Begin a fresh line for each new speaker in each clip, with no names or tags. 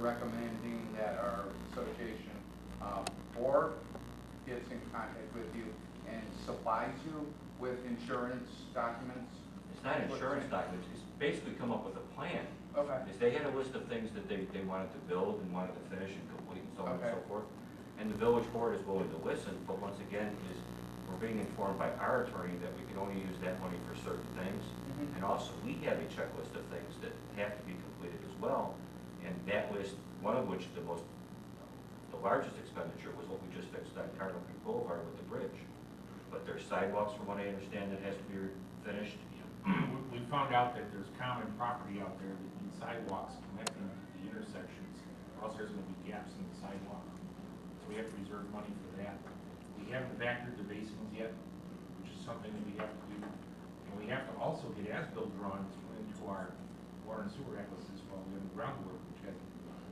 recommending that our association uh, board gets in contact with you and supplies you with insurance documents.
It's not insurance documents, it's basically come up with a plan.
Okay.
Is they had a list of things that they, they wanted to build and wanted to finish and complete and so on and so
Okay.
forth. And the village board is willing to listen, but once again, is, we're being informed by our attorney that we can only use that money for certain things.
Mhm.
And also, we have a checklist of things that have to be completed as well. And that list, one of which, the most, the largest expenditure was what we just fixed on Cardinal Creek Boulevard with the bridge. But there's sidewalks, from what I understand, that has to be finished.
We we found out that there's common property out there that needs sidewalks connecting to the intersections, or else there's gonna be gaps in the sidewalk. So we have to reserve money for that. We haven't factored the basins yet, which is something that we have to do. And we have to also get as-built drawings put into our water and sewer atlases while we're doing groundwork, which hasn't been done.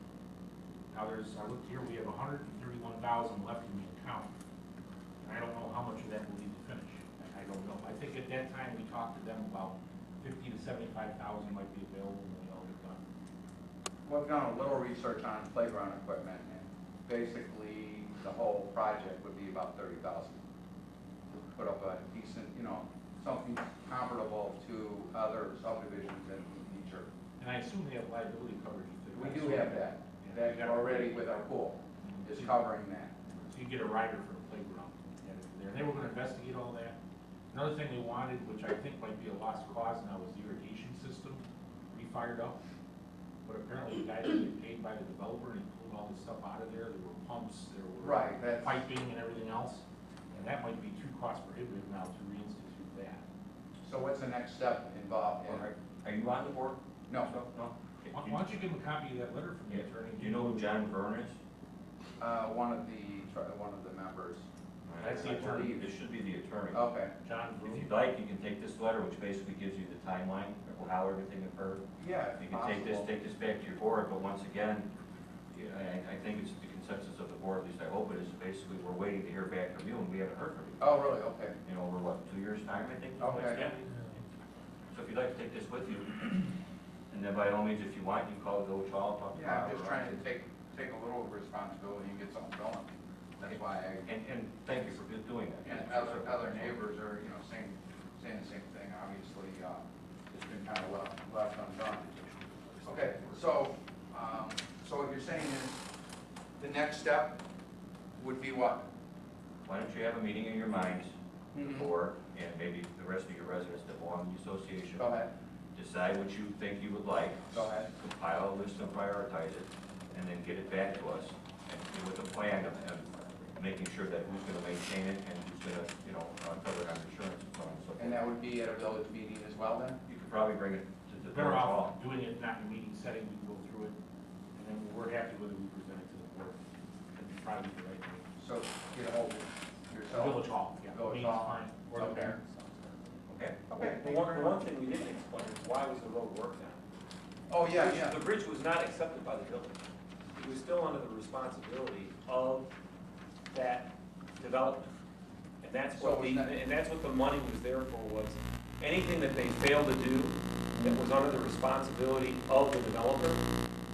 Now, there's, I looked here, we have hundred and thirty-one thousand left in the account. And I don't know how much of that we'll need to finish. I- I don't know. I think at that time, we talked to them about fifty to seventy-five thousand might be available when we all get done.
We've done a little research on playground equipment, and basically, the whole project would be about thirty thousand. Put up a decent, you know, something comparable to other subdivisions in the future.
And I assume they have liability coverage. if
We
they-
do have that, that already with our pool, is covering that.
So you get a rider for the playground added to there. And they were gonna investigate all that. Another thing they wanted, which I think might be a lost cause now, was the irrigation system refired up. But apparently the guys that get paid by the developer and he pulled all this stuff out of there. There were pumps, there were.
Right, that's,
piping and everything else, and that might be too cost prohibitive now to reinstitute that.
so what's the next step involved in,
Are you on the board?
no,
No?
Why why don't you give him a copy of that letter from the
Yeah.
attorney?
Do you know who John Vern is?
uh, one of the, tr- one of the members,
That's the
I believe
attorney.
This should be the attorney.
okay.
John
If
Vroom.
you'd like, you can take this letter, which basically gives you the timeline of how everything occurred.
Yeah,
You
if
can take this,
possible.
take this back to your board, but once again, yeah, I, I think it's the consensus of the board, at least I hope it is, basically, we're waiting to hear back from you, and we haven't heard from you.
Oh, really, okay,
In over what, two years' time, I think? is what it's
Okay.
gonna be. So if you'd like to take this with you, and then by all means, if you want, you can call the village hall, talk to.
yeah, I'm
Bob
just
or-
trying to take, take a little responsibility and get something going, that's why I
And, and thank you for doing that.
And other, other neighbors are, you know, saying, saying the same thing, obviously, uh, it's been kind of left, left undone. Okay, so, um, so what you're saying is, the next step would be what?
Why don't you have a meeting in your minds,
Mm-hmm.
the board, and maybe the rest of your residents that belong to the association,
Go ahead,
decide what you think you would like,
go ahead.
compile a list and prioritize it, and then get it back to us, and with a plan of, of making sure that who's gonna maintain it and who's gonna, you know, uh, cover it on insurance and so on and so
And
forth.
that would be at a village meeting as well then?
You could probably bring it to the
Better off
board hall.
doing it not in a meeting setting, we can go through it, and then we're happy whether we present it to the board. That'd probably be the right thing.
So get a hold of yourself.
Oh. Village hall, yeah.
Village
meeting's
hall.
fine, Or the
Okay.
parents.
Okay,
Okay,
The
thank you
one,
very
the one
much.
thing we didn't explain is why was the road worked on?
Oh, yeah, yeah,
The bridge was not accepted by the village. It was still under the responsibility of that development. And that's
So
what the,
was that-
and that's what the money was there for, was anything that they failed to do that
Mm-hmm,
was under the responsibility of the developer,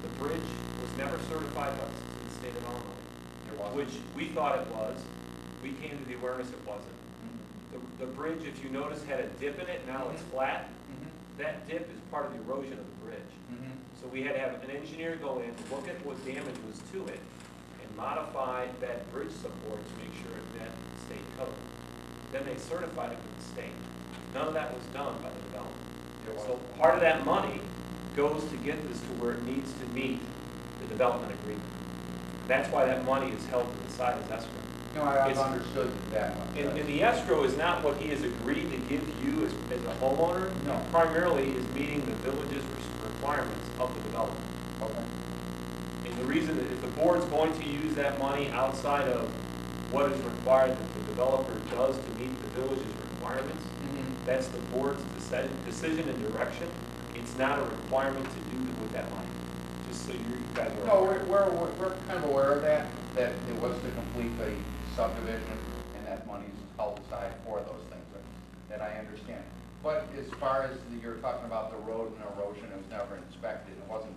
the bridge was never certified by the state of Illinois,
you're welcome.
which we thought it was. We came to the awareness it wasn't.
Mhm,
The, the bridge, if you notice, had a dip in it, now
Mm-hmm.
it's flat.
mhm,
That dip is part of the erosion of the bridge.
mhm.
So we had to have an engineer go in, look at what damage was to it, and modify that bridge support to make sure it met state code. Then they certified it with the state. None of that was done by the developer.
You're
So
welcome.
part of that money goes to get this to where it needs to meet the development agreement. That's why that money is held to the side as escrow.
No, I- I've
It's-
understood that one.
And, and the escrow is not what he has agreed to give you as, as a homeowner.
No.
Primarily is meeting the village's requirements of the development.
Okay.
And the reason, that if the board's going to use that money outside of what is required that the developer does to meet the village's requirements,
Mhm.
that's the board's decision, decision and direction. It's not a requirement to do with that money, just so you guys are.
No,
aware.
we're, we're, we're kind of aware of that, that it was to complete the subdivision and that money's held aside for those things, that- that I understand. But as far as the- you're talking about the road and erosion, it was never inspected, it wasn't